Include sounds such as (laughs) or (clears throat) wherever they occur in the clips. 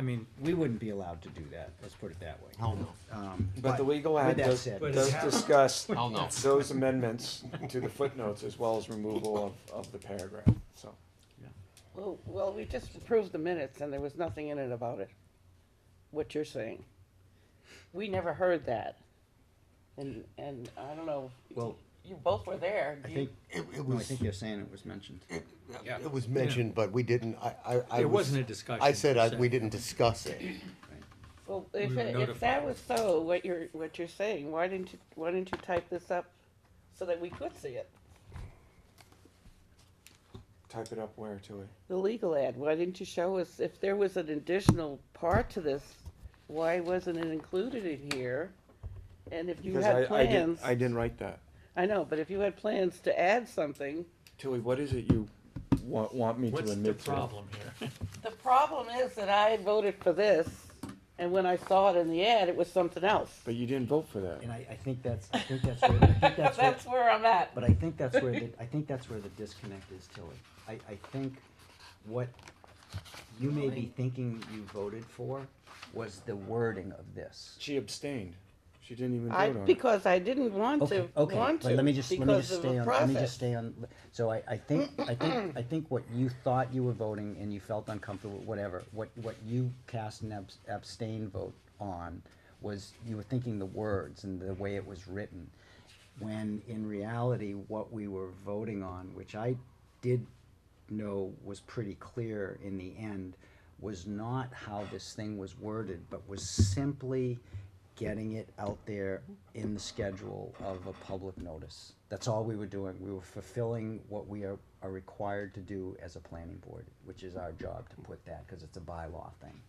mean, we wouldn't be allowed to do that, let's put it that way. Hell Oh, no. Um, But the legal ad With that does, said- But does it's happened. discuss Hell no. those amendments to the footnotes as well as removal of, of the paragraph, so. Well, well, we just approved the minutes and there was nothing in it about it, what you're saying. We never heard that. And, and I don't know, Well- you both were there. I You- think, It, it no, I was, think they're saying it was mentioned. it, Yeah. it was mentioned, but we didn't, I, I, I. It was- wasn't a discussion, I said, I, so- we didn't discuss it. Well, if, were it- if that notified. was so, what you're, what you're saying, why didn't you, why didn't you type this up so that we could see it? Type it up where, Tilly? The legal ad, why didn't you show us, if there was an additional part to this, why wasn't it included in here? And if you Because had I, I didn't, plans, I didn't write that. I know, but if you had plans to add something, Tilly, what is it you want, want me to admit What's to? the problem here? The problem is that I had voted for this, and when I saw it in the ad, it was something else. But you didn't vote for that. And I, I think that's, I think that's where, I think (laughs) that's where, That's where I'm at. but I think that's where, the- I think that's where the disconnect is, Tilly. I, I think what you may be thinking you voted for was the wording of this. She abstained. She didn't even vote I, on it. because I didn't want Okay, to, okay, want to, but let me just, let me because just of the stay on, let me just process. stay on, so I, I think, I (clears throat) think, I think what you thought you were voting and you felt uncomfortable, whatever, what, what you cast an abs- abstain vote on was you were thinking the words and the way it was written, when in reality, what we were voting on, which I did know was pretty clear in the end, was not how this thing was worded, but was simply getting it out there in the schedule of a public notice. That's all we were doing. We were fulfilling what we are, are required to do as a planning board, which is our job to put that, because it's a bylaw thing.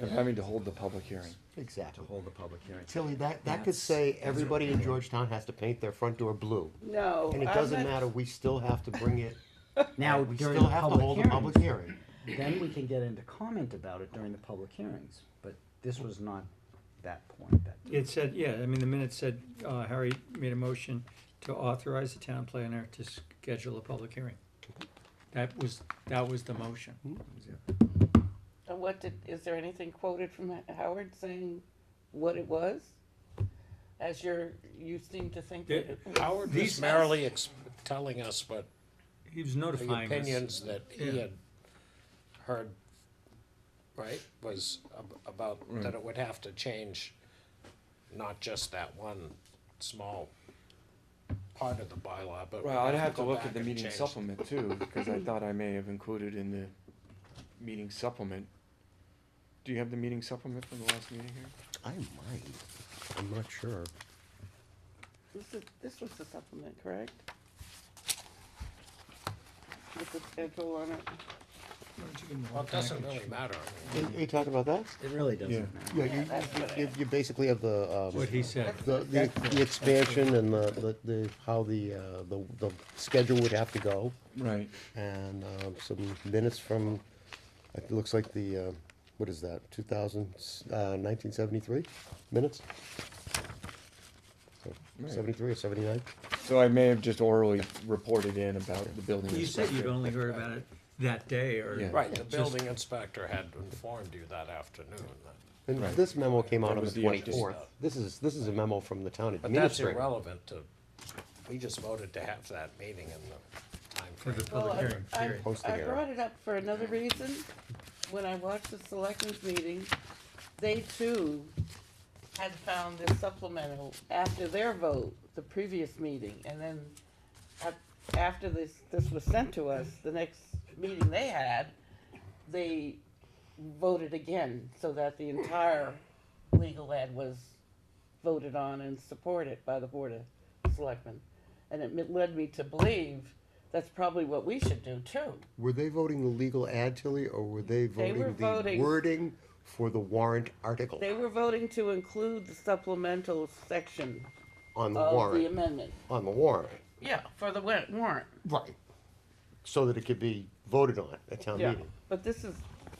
Of having to hold the public hearing. To Exactly. hold the public hearing. Tilly, that, that could That's- say that's what everybody we're in doing. Georgetown has to paint their front door blue. No. And it I'm doesn't not- matter, we still have to bring it, Now, we during still the have to hold a public public hearing, hearing. then we can get into comment about it during the public hearings, but this was not that point, that. It said, yeah, I mean, the minute said, uh, Harry made a motion to authorize the town planner to schedule a public hearing. That was, that was the motion. And what did, is there anything quoted from Howard saying what it was? As you're, you seem to think that. it was- Howard These- was merely ex- telling us what He was the notifying us. opinions that he Yeah. had heard, right, was ab- about, that it would have to change not just that one small part of the bylaw, but. Well, I'd have to go look back at the and meeting change- supplement too, because I thought I may have included in the meeting supplement. Do you have the meeting supplement from the last meeting here? I might, I'm not sure. This is, this was the supplement, correct? With the schedule on it? Well, it doesn't really matter. I mean, Are you talking about that? It really Yeah. doesn't matter. Yeah, you, that's what I- you, you basically have the, um. What he said. The, the, the expansion and the, the- the, how the, uh, the, the schedule would have to go, Right. and, um, some minutes from, it looks like the, uh, what is that, two thousand, uh, nineteen seventy-three minutes? So, Right. Seventy-three or seventy-nine? So I may have just orally reported in about the building. You said you'd inspector. only heard about it that day Yeah. or. Right, the Just- building inspector had informed you that afternoon. that- And Right. this memo came out That on was the the update. twenty-fourth. This is, this is a memo from the town But that's administrator. irrelevant to, we just voted to have that meeting in the For the timeframe. Well, public I- hearing, I- period. Post the I hearing. brought it up for another reason. When I watched the selectmen's meeting, they too had found this supplemental after their vote, the previous meeting, and then a- after this, this was sent to us, the next meeting they had, they voted again, so that the entire legal ad was voted on and supported by the Board of Selectmen. And it mi- led me to believe that's probably what we should do too. Were they voting the legal ad, Tilly, or were they They were voting the voting- wording for the warrant article They were voting to include the supplemental section on the of the warrant, amendment. on the warrant? Yeah, for the wa- warrant. Right. So that it could be voted on at town Yeah, meeting. but this is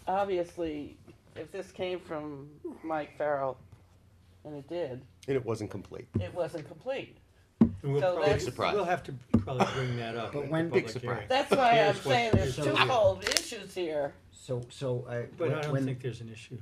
obviously, if this came from Mike Farrell, and it did, And it wasn't complete. it wasn't complete. It And we'll So probably- Big surprise. We'll have to probably bring that up. But at the when- Big public surprise. hearing. That's why I'm Here's what- saying there's here's what- twofold issues here. So, so I. But I when- don't when- think there's an issue.